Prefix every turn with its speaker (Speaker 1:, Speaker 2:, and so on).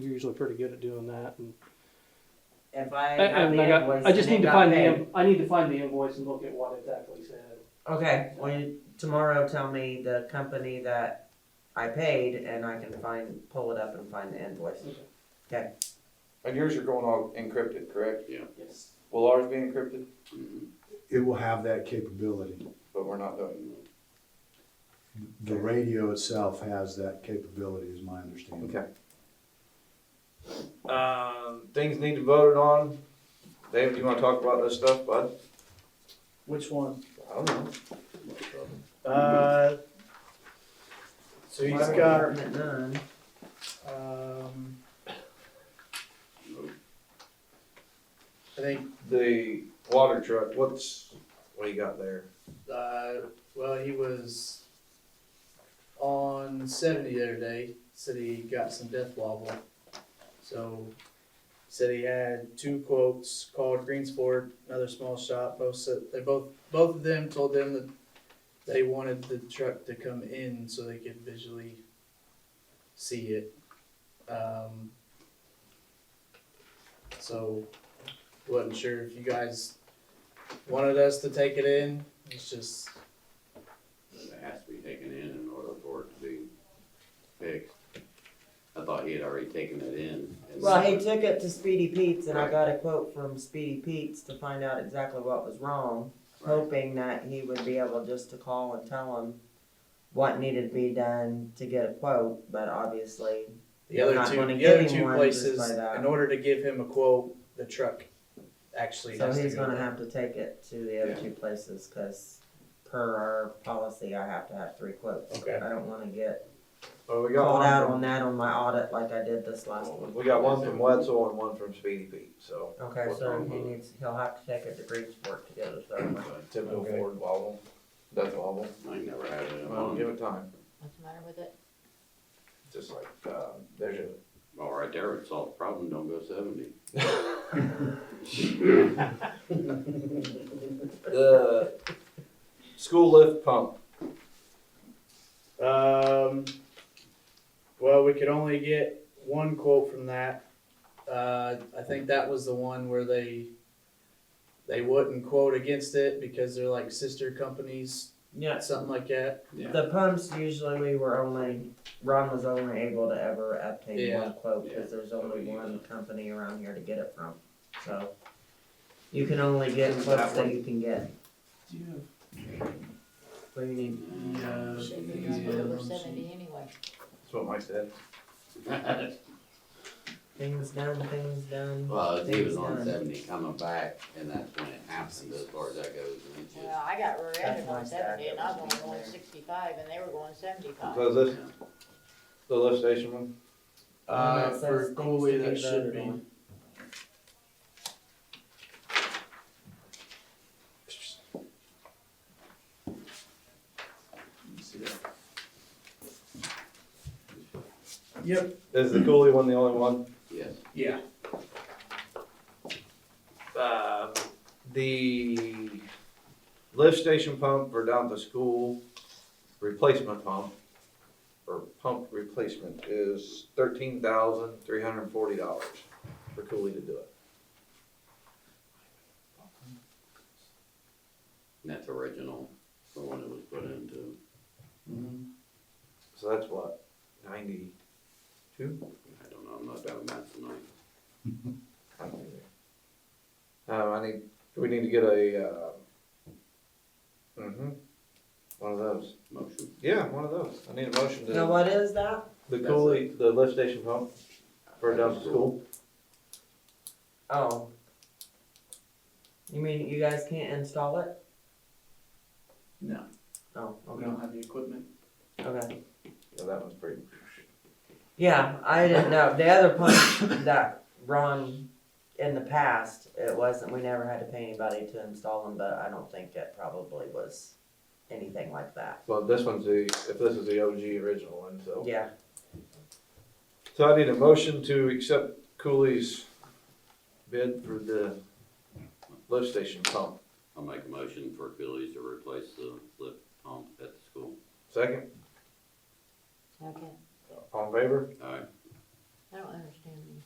Speaker 1: You're usually pretty good at doing that, and,
Speaker 2: If I
Speaker 1: Uh, and
Speaker 2: have the
Speaker 1: I, got-
Speaker 2: invoice,
Speaker 1: I just
Speaker 2: and
Speaker 1: need
Speaker 2: it
Speaker 1: to
Speaker 2: got
Speaker 1: find
Speaker 2: paid.
Speaker 1: the the I need to find the invoice and look at what exactly said.
Speaker 2: Okay, well, you- tomorrow tell me the company that I paid and I can find, pull it up and find the invoice.
Speaker 3: And yours are going all encrypted, correct?
Speaker 1: Yes.
Speaker 3: Will ours be encrypted?
Speaker 4: It will have that capability.
Speaker 3: But we're not doing
Speaker 4: The radio itself has that capability, is my
Speaker 3: it.
Speaker 4: understanding.
Speaker 3: Okay. Um, things need to be voted on. David, you wanna talk about this stuff, bud?
Speaker 5: Which one?
Speaker 3: I don't know.
Speaker 5: Uh, so he's got,
Speaker 2: Department none.
Speaker 5: um, I think,
Speaker 3: The water truck, what's, what you got there?
Speaker 5: uh, well, he was on seventy the other day, said he got some death wobble. So, said he had two quotes, called Greensport, another small shop, both said, they both, both of them told them that they wanted the truck to come in so they could visually see it. Um, so, wasn't sure if you guys wanted us to take it in, it's just,
Speaker 6: It has to be taken in in order for it to be fixed. I thought he had already taken it in. and-
Speaker 2: Well, he took it to Speedy Pete's and I
Speaker 6: Right.
Speaker 2: got a quote from Speedy Pete's to find out exactly what was wrong, hoping that he would be able just to call and tell him what needed to be done to get a quote, but obviously,
Speaker 5: The other
Speaker 2: Not
Speaker 5: two,
Speaker 2: gonna
Speaker 5: the
Speaker 2: give
Speaker 5: other
Speaker 2: him
Speaker 5: two
Speaker 2: one just
Speaker 5: places,
Speaker 2: by that.
Speaker 5: in order to give him a quote, the truck actually
Speaker 2: so
Speaker 5: has to
Speaker 2: he's
Speaker 5: go.
Speaker 2: gonna have to take it to the other two places, cause per our policy, I have to have three quotes.
Speaker 5: Okay.
Speaker 2: I don't wanna get
Speaker 3: Well, we got
Speaker 2: called out
Speaker 3: one
Speaker 2: on that on my audit like I did this last one.
Speaker 3: from, we got one from Wetzel and one from Speedy Pete, so.
Speaker 2: Okay,
Speaker 3: What's
Speaker 2: so
Speaker 3: wrong
Speaker 2: he
Speaker 3: with it?
Speaker 2: needs, he'll have to take it to Greensport to get it done.
Speaker 3: Typical
Speaker 5: Okay.
Speaker 3: Ford wobble, that's wobble.
Speaker 6: I ain't never had it in
Speaker 3: Well, give
Speaker 6: one.
Speaker 3: it time,
Speaker 7: What's the matter with it?
Speaker 3: just like, uh, there's a
Speaker 6: Well, right there, it solved the problem, don't go seventy.
Speaker 3: The school lift pump,
Speaker 5: Um, well, we could only get one quote from that. Uh, I think that was the one where they, they wouldn't quote against it because they're like sister companies,
Speaker 2: Yes.
Speaker 5: something like that.
Speaker 6: Yeah.
Speaker 2: The pumps usually we were only, Ron was only able to ever obtain
Speaker 5: Yeah.
Speaker 2: one quote,
Speaker 6: Yeah.
Speaker 2: cause there's only one company around here to get it from, so. You can only get quotes that you can get, what do you need?
Speaker 5: Yeah.
Speaker 7: Should be on over seventy anyway.
Speaker 3: that's what Mike said.
Speaker 2: Things done, things done.
Speaker 6: Well, he was on
Speaker 2: things done.
Speaker 6: seventy coming back, and that's when it happened, as far as that goes, and it
Speaker 7: Well,
Speaker 6: just.
Speaker 7: I got
Speaker 2: That's
Speaker 7: rear-ended on
Speaker 2: nice to
Speaker 7: seventy
Speaker 2: have
Speaker 7: and I was
Speaker 2: everything
Speaker 7: only going
Speaker 2: there.
Speaker 7: sixty-five and they were going seventy-five.
Speaker 3: So this, the lift station one,
Speaker 5: Uh,
Speaker 2: That says
Speaker 5: for
Speaker 2: things
Speaker 5: Cooley,
Speaker 2: to be
Speaker 5: that should
Speaker 2: voted
Speaker 5: be.
Speaker 2: on.
Speaker 5: Yep.
Speaker 3: is the coolie one the only one?
Speaker 6: Yes,
Speaker 5: Yeah.
Speaker 3: Uh, the lift station pump for down the school replacement pump, or pump replacement is thirteen thousand three hundred and forty dollars for coolie to do it.
Speaker 6: and that's original, the one that was put into.
Speaker 3: So that's what, ninety-two?
Speaker 6: I don't know, I'm not down that tonight.
Speaker 3: I don't either. Um, I need, we need to get a, uh, mm-hmm, one of those.
Speaker 6: Motion,
Speaker 3: Yeah, one of those. I need a motion
Speaker 2: Now,
Speaker 3: to,
Speaker 2: what is that?
Speaker 3: the coolie, the lift station pump for down the school.
Speaker 2: Oh. You mean you guys can't install it?
Speaker 5: No.
Speaker 2: Oh,
Speaker 5: We
Speaker 2: okay,
Speaker 5: don't have the equipment.
Speaker 2: okay.
Speaker 3: Yeah, that one's pretty.
Speaker 2: Yeah, I didn't know. The other pump that Ron, in the past, it wasn't, we never had to pay anybody to install them, but I don't think it probably was anything like that.
Speaker 3: Well, this one's the, if this is the OG original one, so.
Speaker 2: Yeah,
Speaker 3: So I need a motion to accept Cooley's bid for the lift station pump.
Speaker 6: I'll make a motion for Cooley's to replace the lift pump at the school.
Speaker 3: Second,
Speaker 7: Okay.
Speaker 3: all in favor?
Speaker 6: uh, All right,
Speaker 7: I don't understand